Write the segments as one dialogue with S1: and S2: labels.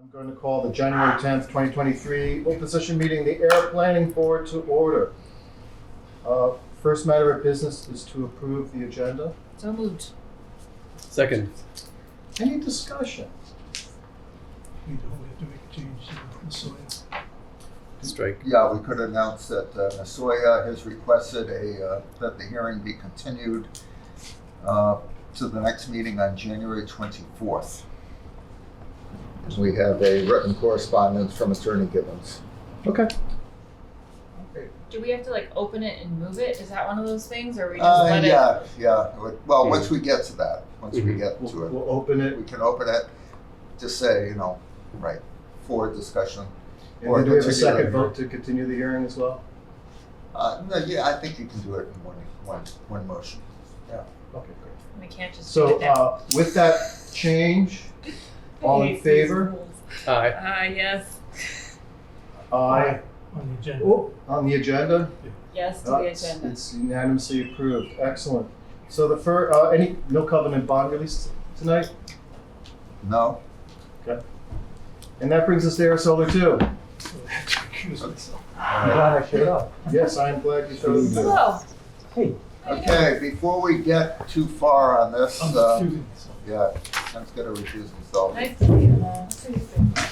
S1: I'm going to call the January 10th, 2023 open session meeting, the Air Planning Board to order. Uh, First matter of business is to approve the agenda.
S2: So moved.
S3: Second.
S1: Any discussion?
S4: We don't, we have to make a change to the soil.
S3: Strike.
S5: Yeah, we could announce that uh, Nasoya has requested a, uh, that the hearing be continued uh, to the next meeting on January 24th. We have a written correspondence from Attorney Gibbons.
S3: Okay.
S1: Okay.
S2: Do we have to like open it and move it? Is that one of those things, or we just
S5: Uh,
S2: let it?
S5: Yeah, yeah, Would- well, once we get to that, once we
S3: Mhm.
S5: get
S1: We'll
S5: to
S1: we'll open
S5: it,
S1: it.
S5: we can open it, just say, you know, right, for discussion.
S1: And
S5: Or
S1: then do we have a
S5: continue
S1: second
S5: it.
S1: vote to continue the hearing as well?
S5: Uh, No, yeah, I think you can do it in one, one, one motion.
S1: Okay, great.
S2: We can't just do
S1: So
S2: it now.
S1: uh, with that change, all in favor?
S3: Aye.
S2: Ah, yes.
S1: aye
S4: On the agenda.
S1: Oh, on the agenda?
S2: Yes to
S1: Uh,
S2: the
S1: it's-
S2: agenda.
S1: It's unanimously approved. Excellent. So the fir, uh, any, no covenant bond release tonight?
S5: No?
S1: And that brings us to Air Solar Two.
S4: So I have to recuse myself.
S6: I'm glad I showed up.
S1: Yes, I am glad you showed me.
S2: Hello.
S6: Hey.
S2: How you doing?
S5: Okay, before we get too far on this,
S4: I'm
S5: uh,
S4: recusing myself.
S5: Yeah, Ken's gonna recuse himself.
S2: Nice to meet you. Uh,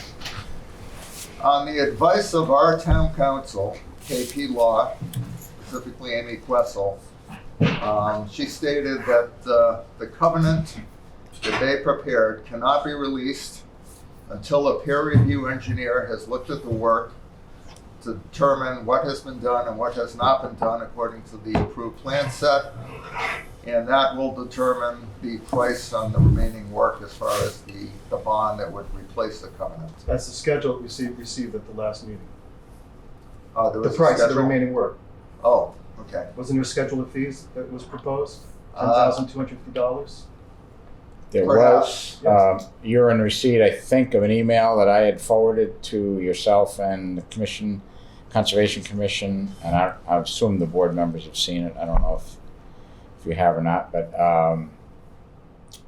S5: On the advice of our town council, KP Law, specifically Amy Questle, um, she stated that, uh, the covenant that they prepared cannot be released until a peer review engineer has looked at the work to determine what has been done and what has not been done according to the approved plan set. And that will determine the price on the remaining work as far as the, the bond that would replace the covenant.
S1: That's the schedule we received, received at the last meeting.
S5: Oh, there
S1: The
S5: was a
S1: price of the
S5: schedule?
S1: remaining work.
S5: Oh, okay.
S1: Wasn't there a schedule of fees that was proposed? Ten
S5: Uh,
S1: thousand two hundred fifty dollars?
S7: There
S5: Perhaps.
S7: was. Um, you're in receipt, I think, of an email that I had forwarded to yourself and the commission, Conservation Commission, and I, I assume the board members have seen it. I don't know if, if you have or not, but um,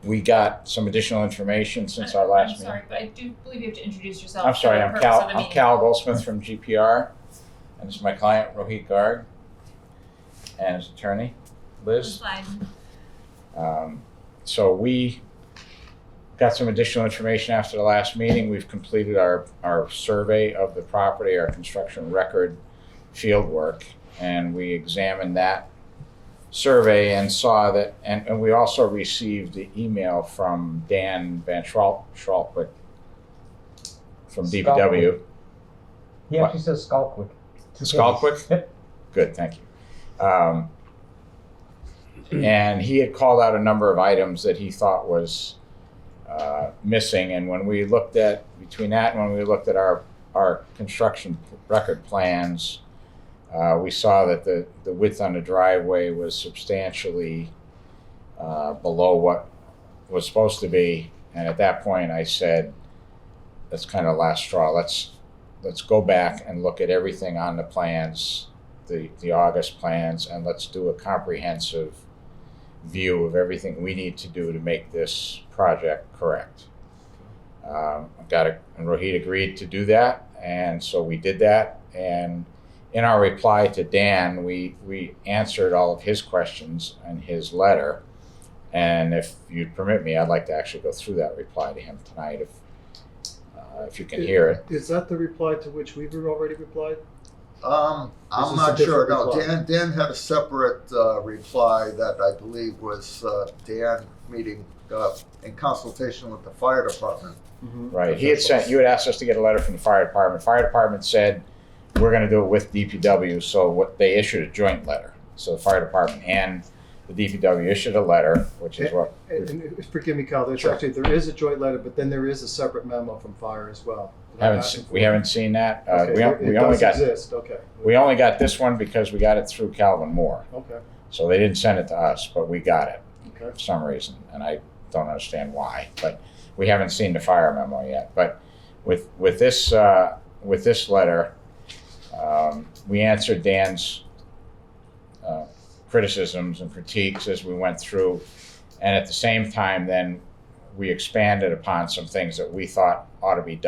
S7: we got some additional information since our last
S2: I'm
S7: meeting.
S2: sorry, but I do believe you have to introduce yourself.
S7: I'm
S2: for
S7: sorry,
S2: the
S7: I'm
S2: purpose
S7: Cal,
S2: of the
S7: I'm
S2: meeting.
S7: Cal Goldsmith from GPR, and this is my client, Rohit Garg, and his attorney, Liz. Um, so we got some additional information after the last meeting. We've completed our, our survey of the property, our construction record field work, and we examined that survey and saw that, and, and we also received the email from Dan Van Schral- Schralkwick from DPW.
S6: He actually says Skulkwick.
S7: Skolkwick? Good, thank you. Um, and he had called out a number of items that he thought was uh, missing. And when we looked at, between that and when we looked at our, our construction record plans, uh, we saw that the, the width on the driveway was substantially uh, below what was supposed to be. And at that point, I said, that's kind of last straw. Let's let's go back and look at everything on the plans, the, the August plans, and let's do a comprehensive view of everything we need to do to make this project correct. Um, I've got a, and Rohit agreed to do that, and so we did that. And in our reply to Dan, we, we answered all of his questions and his letter. And if you'd permit me, I'd like to actually go through that reply to him tonight if, uh, if you can hear it.
S1: Is that the reply to which we've already replied?
S5: Um,
S1: This
S5: I'm
S1: is a
S5: not sure.
S1: different
S5: No,
S1: reply.
S5: Dan, Dan had a separate, uh, reply that I believe was, uh, Dan meeting, uh, in consultation with the fire department.
S7: Right, he had sent, you had asked us to get a letter from the fire department. Fire department said, we're gonna do it with DPW, so what, they issued a joint letter. So the fire department and the DPW issued a letter, which is what,
S1: And, and forgive me, Cal, there's
S7: Sure.
S1: actually, there is a joint letter, but then there is a separate memo from fire as well.
S7: haven't, se- we haven't seen that. Uh,
S1: Okay,
S7: we, on-
S1: it-
S7: we only
S1: It
S7: got,
S1: does exist, okay.
S7: we only got this one because we got it through Calvin Moore.
S1: Okay,
S7: So they didn't send it to us, but we got it
S1: okay.
S7: for some reason, and I don't understand why, but we haven't seen the fire memo yet. But with, with this, uh, with this letter, um, we answered Dan's uh, criticisms and critiques as we went through. And at the same time, then, we expanded upon some things that we thought ought to be done.